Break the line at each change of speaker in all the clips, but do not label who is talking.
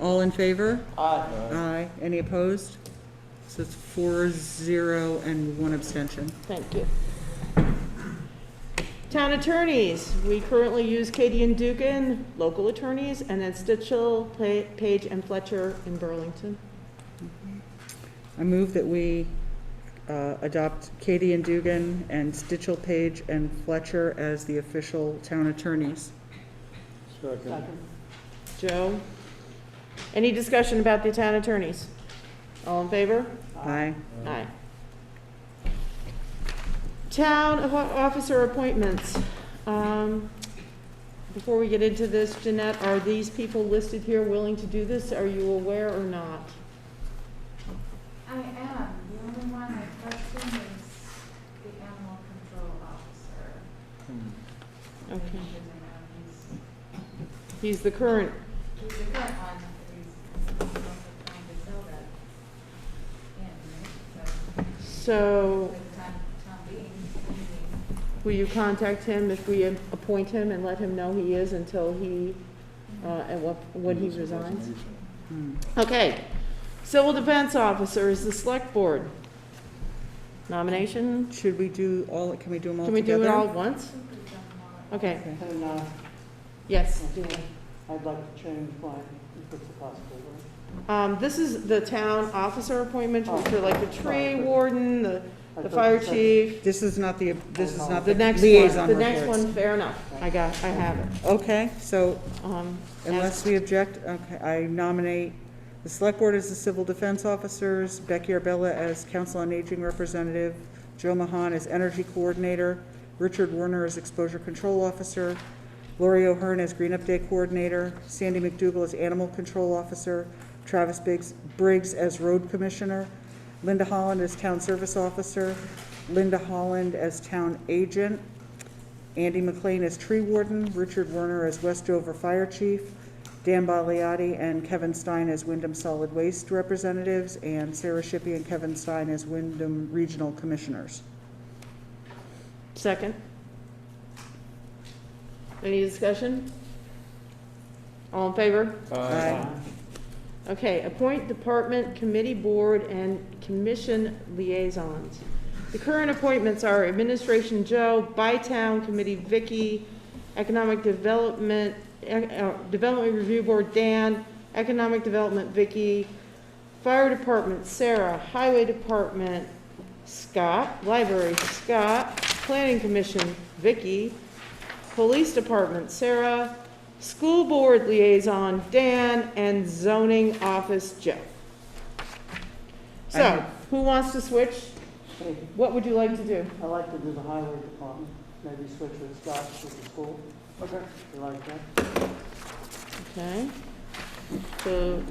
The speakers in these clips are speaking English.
All in favor?
Aye.
Aye. Any opposed? So it's four, zero, and one abstention.
Thank you. Town attorneys, we currently use Katie and Dugan, local attorneys, and then Stitchell, Pa- Page, and Fletcher in Burlington.
I move that we uh, adopt Katie and Dugan and Stitchell Page and Fletcher as the official town attorneys.
Second.
Joe? Any discussion about the town attorneys? All in favor?
Aye.
Aye. Town of- officer appointments. Um, Before we get into this, Jeanette, are these people listed here willing to do this? Are you aware or not?
I am, the only one I question is the animal control officer. I
Okay.
think he's around. He's-
He's the current,
He's the current one, but he's, he's also trying to sell that. And, so,
so
for the time, time being, he's-
will you contact him if we appoint him and let him know he is until he, uh, at what, when he resigns?
Hmm.
Okay, civil defense officer is the select board. Nomination,
Should we do all, can we do them all
can we do it
together?
all at once?
I think we've done them all.
Okay,
And uh,
yes.
Dina, I'd like to change mine, if it's possible, right?
Um, this is the town officer appointment
Oh.
for like the tree warden, the,
I
the
thought
fire
you said-
chief,
This is not the, this is not
the
the
next
liaison
one, the
reports.
next one, fair enough, I got, I have it.
Okay, so
Um, as-
unless we object, okay, I nominate the select board as the civil defense officers, Becky Arbella as council on aging representative, Joe Mahan as energy coordinator, Richard Warner as exposure control officer, Lori O'Hearn as green up day coordinator, Sandy McDougal as animal control officer, Travis Biggs, Briggs as road commissioner, Linda Holland as town service officer, Linda Holland as town agent, Andy McLean as tree warden, Richard Werner as Westover fire chief, Dan Baliotti and Kevin Stein as Wyndham Solid Waste representatives, and Sarah Shippey and Kevin Stein as Wyndham Regional Commissioners.
Second. Any discussion? All in favor?
Aye.
Okay, appoint department, committee, board, and commission liaisons. The current appointments are Administration Joe, Bytown Committee Vicky, Economic Development, eh, uh, Development Review Board Dan, Economic Development Vicky, Fire Department Sarah, Highway Department Scott, Library Scott, Planning Commission Vicky, Police Department Sarah, School Board Liaison Dan, and Zoning Office Joe.
I
So, who wants to switch?
Hey,
What would you like to do?
I'd like to do the highway department, maybe switch with Scott to the school. Okay. You like that?
Okay, so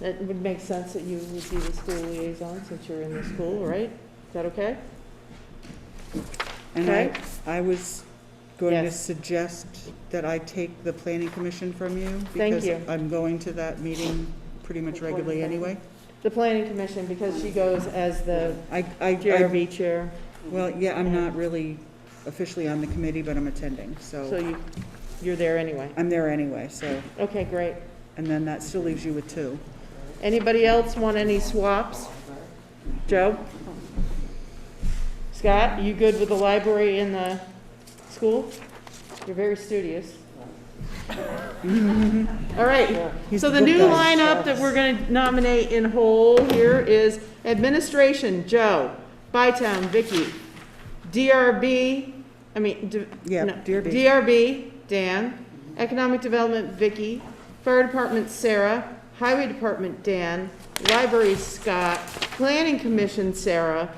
that would make sense that you would be the school liaison since you're in the school, right? Is that okay?
And I,
Okay.
I was going to
Yes.
suggest that I take the planning commission from you.
Thank you.
Because I'm going to that meeting pretty much regularly anyway.
The planning commission, because she goes as the
I, I, I-
JRB chair,
well, yeah, I'm not really officially on the committee, but I'm attending,
so
so
you, you're there anyway.
I'm there anyway, so,
Okay, great.
and then that still leaves you with two.
Anybody else want any swaps? Joe? Scott, you good with the library and the school? You're very studious. All right,
He's
so
the
the
good
new
guy.
lineup that we're gonna nominate in whole here is Administration, Joe, Bytown, Vicky, DRB, I mean, d-
Yeah,
no,
DRB.
DRB, Dan, Economic Development, Vicky, Fire Department, Sarah, Highway Department, Dan, Library, Scott, Planning Commission, Sarah,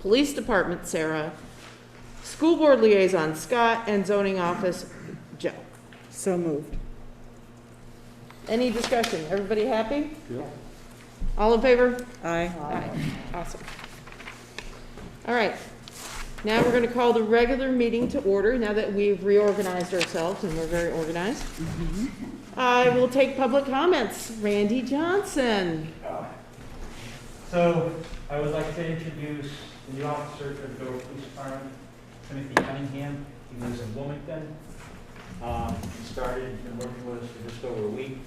Police Department, Sarah, School Board Liaison, Scott, and Zoning Office, Joe.
So moved.
Any discussion? Everybody happy?
Yep.
All in favor?
Aye.
Awesome. All right. Now we're going to call the regular meeting to order, now that we've reorganized ourselves and we're very organized. I will take public comments. Randy Johnson.
So I would like to introduce the new officer for the Dover Police Department, Timothy Cunningham. He lives in Wilmington. Um, He started, been working with us for just over a week.